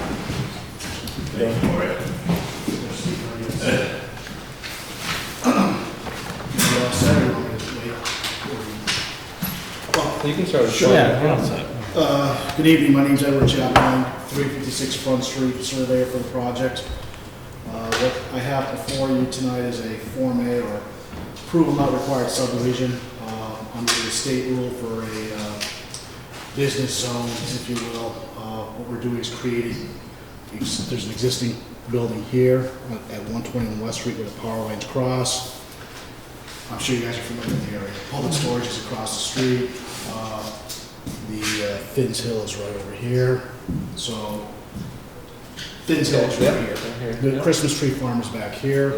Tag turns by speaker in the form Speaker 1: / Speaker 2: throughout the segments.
Speaker 1: Thank you, Maria.
Speaker 2: You can start.
Speaker 1: Sure.
Speaker 2: Yeah.
Speaker 1: Uh, Good evening, my name's Edward Chapman, 356 Front Street, surveyor for the project. Uh, What I have before you tonight is a Form A or approval not required subdivision uh, under the state rule for a uh, business zone, if you will. Uh, What we're doing is creating, there's an existing building here at 121 West Street where the power lines cross. I'm sure you guys are familiar with the area. Public storage is across the street. Uh, The uh, Finn's Hill is right over here, so Finn's Hill is right here. The Christmas tree farm is back
Speaker 2: Yep.
Speaker 1: here.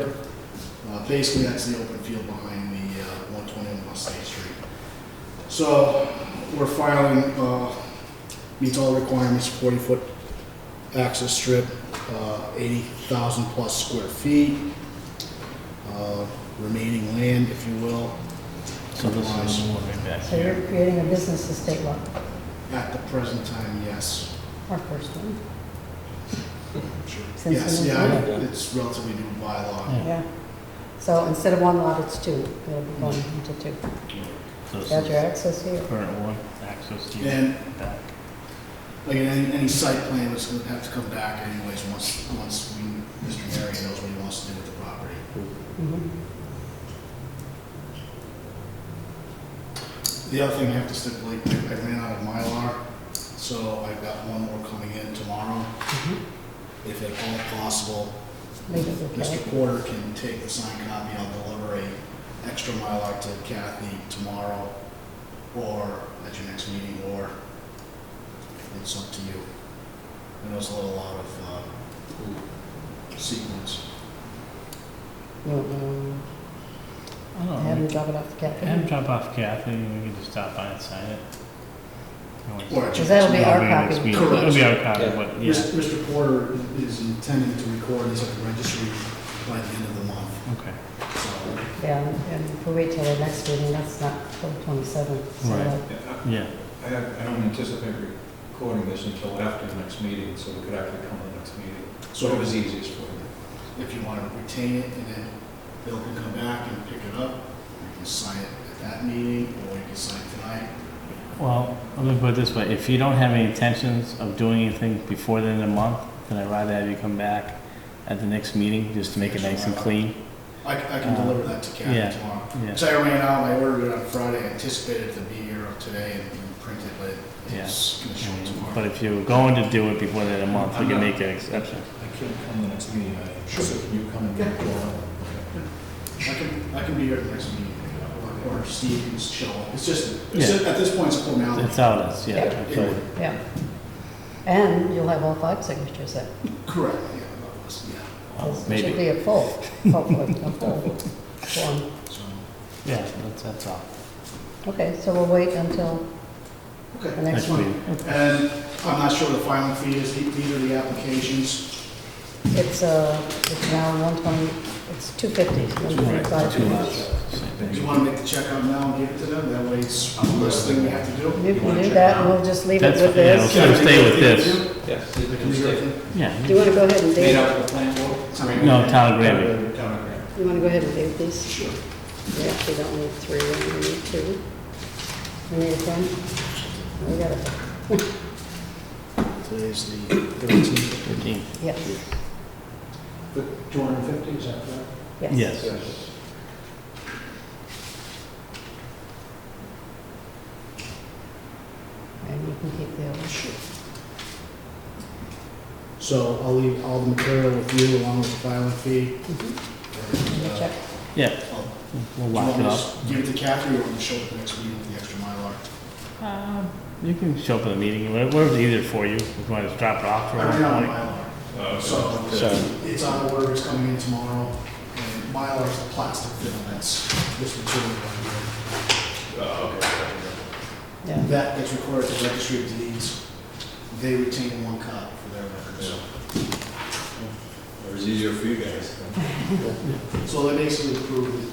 Speaker 1: Uh, Basically, that's the open field behind the uh, 121 West State Street. So we're filing, uh, meets all the requirements, 40-foot access strip, uh, 80,000 plus square feet, uh, remaining land, if you will. Otherwise,
Speaker 3: So you're creating a business estate lot,
Speaker 1: At the present time, yes.
Speaker 3: our first one, Since
Speaker 1: Yes,
Speaker 3: it was
Speaker 1: yeah,
Speaker 2: new.
Speaker 1: I- it's relatively new bylaw.
Speaker 3: yeah. So instead of one lot, it's two, it'll be going
Speaker 4: Mm-hmm.
Speaker 3: into two. Got your access here,
Speaker 4: Current one, access to you.
Speaker 1: And like any, any site plan was gonna have to come back anyways, once, once we, Mr. Marion knows what he wants to do with the property.
Speaker 4: Mm-hmm.
Speaker 1: The other thing I have to stipulate, I I ran out of Mylar, so I've got one more coming in tomorrow. If at all possible,
Speaker 3: Mm-hmm. make it look
Speaker 1: Mr.
Speaker 3: like-
Speaker 1: Porter can take the signed copy, I'll deliver a extra Mylar to Kathy tomorrow, or at your next meeting, or it's up to you. I know it's a little lot of, uh, sequence.
Speaker 3: You want me
Speaker 4: I
Speaker 3: to have
Speaker 4: don't
Speaker 3: him
Speaker 4: know.
Speaker 3: drop it off the
Speaker 4: Have him
Speaker 3: cafe?
Speaker 4: Oh, drop off Kathy, and we can just stop by and sign it.
Speaker 1: Or at your
Speaker 3: Because that'll be
Speaker 1: next
Speaker 3: our
Speaker 4: It'll be next
Speaker 3: copy.
Speaker 4: week.
Speaker 1: Correct.
Speaker 4: It'll be our copy,
Speaker 2: Yeah.
Speaker 4: but,
Speaker 1: meeting.
Speaker 4: yeah,
Speaker 1: Mis- Mr. Porter is intending to record this at the registry by the end of the month,
Speaker 4: okay.
Speaker 1: so
Speaker 3: Yeah, and if we wait till the next meeting, that's not till the twenty-seventh, so
Speaker 4: Right.
Speaker 3: uh,
Speaker 5: Yeah,
Speaker 4: Yeah,
Speaker 5: I I don't I don't anticipate recording this until after the next meeting, so we could actually come to the next meeting.
Speaker 1: So-
Speaker 5: So it was easiest for you.
Speaker 1: if you want to retain it, and then Bill can come back and pick it up. You can sign it at that meeting, or you can sign it tonight.
Speaker 4: well, let me put it this way, if you don't have any intentions of doing anything before the end of the month, then I'd rather have you come back at the next meeting, just to make it nice and clean.
Speaker 1: I, c- I can
Speaker 4: Uh,
Speaker 1: deliver that to
Speaker 4: yeah,
Speaker 1: Kathy tomorrow.
Speaker 4: yeah.
Speaker 1: So I ran out, I ordered it on Friday, I anticipated it to be here today and and printed, but
Speaker 4: Yeah.
Speaker 1: it's gonna show
Speaker 4: But
Speaker 1: tomorrow.
Speaker 4: if you're going to do it before the end of the month, we
Speaker 1: Uh-huh.
Speaker 4: can make an exception.
Speaker 5: I can't come to the next meeting, I,
Speaker 1: Sure.
Speaker 5: so can you come and
Speaker 1: Yeah.
Speaker 5: record?
Speaker 1: I can, I can be here at the next meeting, or or Steve can show up. It's just,
Speaker 4: Yeah.
Speaker 1: it's just, at this point, it's a formality.
Speaker 4: That's how it is, yeah.
Speaker 3: Yeah.
Speaker 4: that's all.
Speaker 3: yeah. And you'll have all five signatures then,
Speaker 1: Correct, yeah, yeah.
Speaker 3: 'cause it
Speaker 4: Maybe.
Speaker 3: should be a full, hopefully, a full form.
Speaker 1: So,
Speaker 4: Yeah, that's, that's all.
Speaker 3: Okay, so we'll wait until the
Speaker 1: okay.
Speaker 4: Next
Speaker 3: next one.
Speaker 4: meeting.
Speaker 1: And I'm not sure what the filing fee is, The- these are the applications.
Speaker 3: It's, uh, it's now one twenty, it's two fifty, one twenty-five.
Speaker 4: Two months.
Speaker 1: Do you want to make the check out now and give it to them? That way it's the last thing we have to do.
Speaker 3: You can do that, and we'll just leave it
Speaker 4: That's-
Speaker 3: with
Speaker 4: yeah,
Speaker 3: this.
Speaker 4: So stay with this.
Speaker 2: Yes.
Speaker 1: They can do everything.
Speaker 4: Yeah.
Speaker 3: Do you want to go ahead and
Speaker 2: Made
Speaker 3: date,
Speaker 2: up of the plan board?
Speaker 4: No, Tyler Gravy.
Speaker 3: you want to go ahead and date these?
Speaker 1: Sure.
Speaker 3: We actually don't need three, we only need two. We need a pen? We got it,
Speaker 1: Today's the thirteenth.
Speaker 4: Thirteen.
Speaker 3: yes,
Speaker 5: But two hundred and fifty, is that correct?
Speaker 3: yes.
Speaker 4: Yes.
Speaker 5: Yes.
Speaker 3: And you can keep the other.
Speaker 1: So I'll leave all the material with you along with the filing fee.
Speaker 3: Mhm.
Speaker 1: And,
Speaker 3: And the
Speaker 1: uh,
Speaker 3: check.
Speaker 4: Yeah,
Speaker 1: I'll-
Speaker 4: we'll
Speaker 1: Do you
Speaker 4: lock
Speaker 1: want
Speaker 4: it
Speaker 1: me to
Speaker 4: up.
Speaker 1: s- give it to Kathy or want me to show it the next meeting with the extra Mylar?
Speaker 4: Um, You can show up at the meeting, whatever- whatever's easier for you. If you want to just drop it off for
Speaker 1: I ran out of
Speaker 4: a
Speaker 1: Mylar. So it's on order, it's coming in tomorrow. And Mylar's the plastic film, that's this material. right
Speaker 6: Oh,
Speaker 1: here.
Speaker 3: Yeah,
Speaker 1: That gets recorded at the registry of deeds. They retain one copy for their records.
Speaker 6: It was easier for you guys.
Speaker 1: So they basically approved